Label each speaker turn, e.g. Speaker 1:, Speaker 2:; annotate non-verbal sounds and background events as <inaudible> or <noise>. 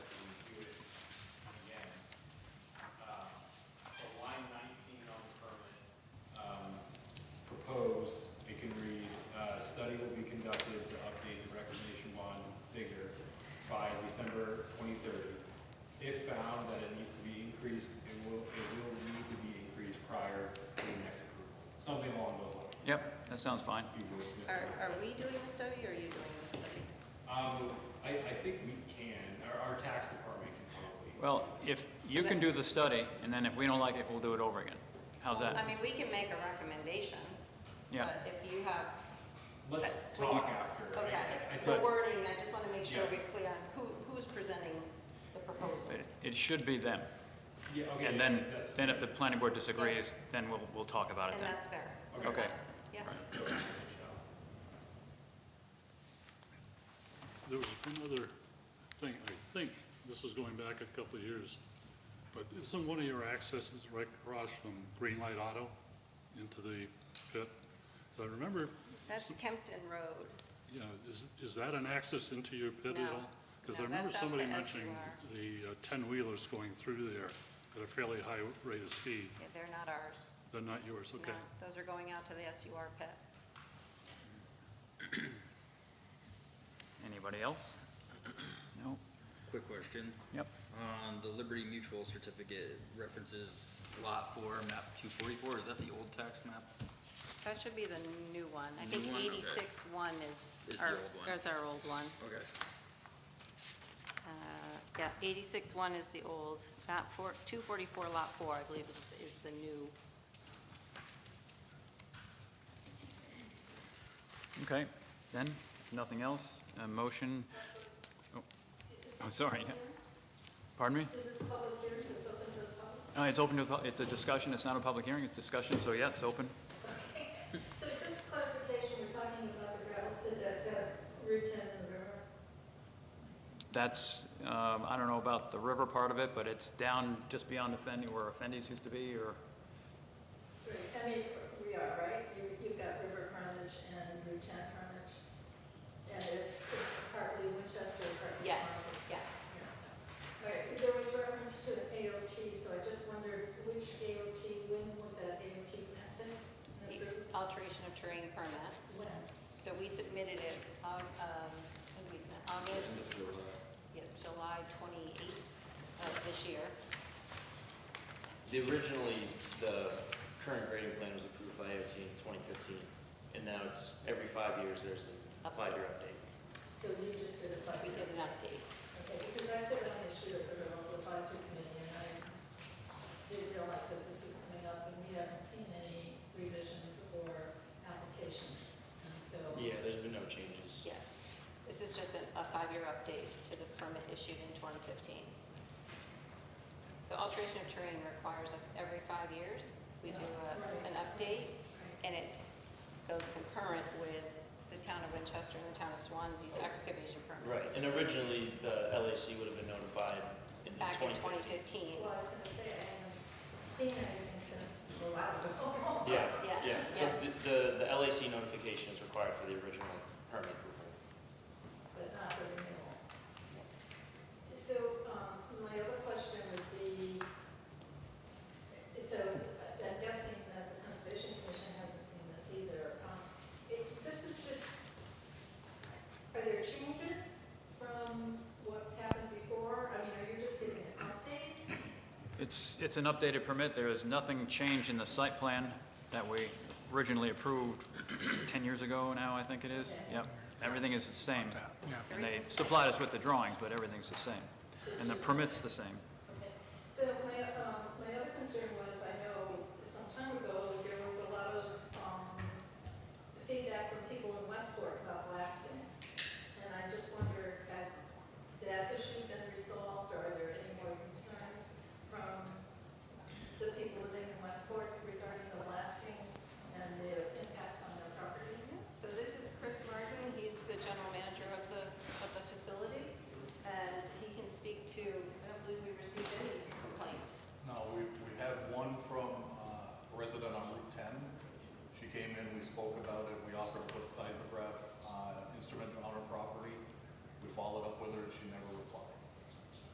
Speaker 1: Yep, that sounds fine.
Speaker 2: Are, are we doing the study, or are you doing the study?
Speaker 3: Um, I, I think we can, our, our tax department can probably.
Speaker 1: Well, if, you can do the study, and then if we don't like it, we'll do it over again. How's
Speaker 2: Well, I
Speaker 1: that?
Speaker 2: mean, we can make a recommendation.
Speaker 1: Yeah.
Speaker 2: But if you have,
Speaker 3: Let's
Speaker 2: But we-
Speaker 3: talk after. I-
Speaker 2: okay,
Speaker 3: I- I
Speaker 2: the
Speaker 3: think-
Speaker 2: wording, I just want to make sure
Speaker 3: Yeah.
Speaker 2: we're clear on who, who's presenting the proposal.
Speaker 1: It- It should be them.
Speaker 3: Yeah, okay.
Speaker 1: And then,
Speaker 3: that's-
Speaker 1: then if the planning board disagrees, then we'll, we'll talk about it
Speaker 2: And
Speaker 1: then.
Speaker 2: that's fair.
Speaker 3: Okay.
Speaker 2: That's
Speaker 1: Okay.
Speaker 2: fine. Yeah.
Speaker 1: <coughs>
Speaker 3: Go ahead, Michelle.
Speaker 4: There was another thing, I think, this is going back a couple of years, but isn't one of your accesses right across from Greenlight Auto into the pit? I remember,
Speaker 2: That's Kempton Road.
Speaker 4: you know, is, is that an access into your pit at
Speaker 2: No.
Speaker 4: all? Because I
Speaker 2: No,
Speaker 4: remember
Speaker 2: that's up to
Speaker 4: somebody mentioning
Speaker 2: SUR.
Speaker 4: the uh, ten-wheelers going through there at a fairly high rate of speed.
Speaker 2: Yeah, They're not ours.
Speaker 4: They're not yours,
Speaker 2: No,
Speaker 4: okay?
Speaker 2: those are going out to the SUR pit.
Speaker 1: Anybody else? <clears throat> No?
Speaker 5: Quick question.
Speaker 1: Yep.
Speaker 5: Um, the Liberty Mutual certificate references lot four, map two forty-four. Is that the old tax map?
Speaker 2: That should be the new one. I think
Speaker 5: New one, okay.
Speaker 2: eighty-six one is
Speaker 5: Is the
Speaker 2: our,
Speaker 5: old one.
Speaker 2: is our old one.
Speaker 5: Okay.
Speaker 2: Uh, Yeah, eighty-six one is the old, map four, two forty-four lot four, I believe, is, is the new.
Speaker 1: Okay, then, if nothing else, a motion, oh, I'm sorry. Pardon me?
Speaker 6: Is this a public hearing that's open to the public?
Speaker 1: No, it's open to, the- it's a discussion, it's not a public hearing, it's discussion, so yeah, it's open.
Speaker 6: So just clarification, we're talking about the gravel pit that's at Route 10 and the river?
Speaker 1: That's, um, I don't know about the river part of it, but it's down just beyond Effendi, where Effendi's used to be, or,
Speaker 6: Right, I mean, we are, right? You- You've got river frontage and Route 10 frontage, and it's partly Winchester, partly. Swansea.
Speaker 2: yes.
Speaker 6: Yeah. All right, there was reference to AOT, so I just wondered which AOT, when was that AOT granted? And approved?
Speaker 2: Alteration of terrain permit.
Speaker 6: When?
Speaker 2: So we submitted it, um, um, when did we submit? August, yeah, July twenty-eighth of this year.
Speaker 7: The originally, the current grading plan was approved by AOT in 2015, and now it's every five years, there's a five-year update.
Speaker 6: So you just did a public
Speaker 2: We
Speaker 6: hearing?
Speaker 2: did an update.
Speaker 6: Okay, because I said on the issue of the local advisory committee, and I didn't realize that this was coming up, and we haven't seen any revisions or applications, and so.
Speaker 7: Yeah, there's been no changes.
Speaker 2: Yeah, this is just a, a five-year update to the permit issued in 2015. So alteration of terrain requires of every five years, we do a- an update, and it goes concurrent with the town of Winchester and the town of Swansea's excavation
Speaker 7: Right,
Speaker 2: permits.
Speaker 7: and originally, the LAC would have been notified in
Speaker 2: Back in 2015.
Speaker 7: 2015.
Speaker 6: Well, I was gonna say, I haven't seen anything since, well, I don't know.
Speaker 7: Yeah,
Speaker 2: Yeah,
Speaker 7: yeah, so
Speaker 2: yeah.
Speaker 7: the- the, the LAC notification is required for the original permit approval.
Speaker 6: but not the renewal. So, um, my other question would be, so uh, I'm guessing that the Conservation Commission hasn't seen this either. Um, it, this is just, are there changes from what's happened before? I mean, are you just giving an update?
Speaker 1: it's, it's an updated permit, there is nothing changed in the site plan that we originally approved <clears throat> 10 years ago now, I think it is. Yep, everything is the same. And they supplied us with the drawings, but everything's the same. And the permit's the same.
Speaker 6: Okay, so my, um, my other concern was, I know some time ago, there was a lot of, um, feedback from people in Westport about blasting. And I just wonder, has that issue been resolved, or are there any more concerns from the people living in Westport regarding the blasting and the impacts on their properties?
Speaker 2: So this is Chris Martin, he's the general manager of the, of the facility, and he can speak to, I don't believe we received any complaints.
Speaker 8: No, we, we have one from uh, a resident on Route 10. She came in, we spoke about it, we offered to put a seismograph uh, instrument on her property. We followed up with her, she never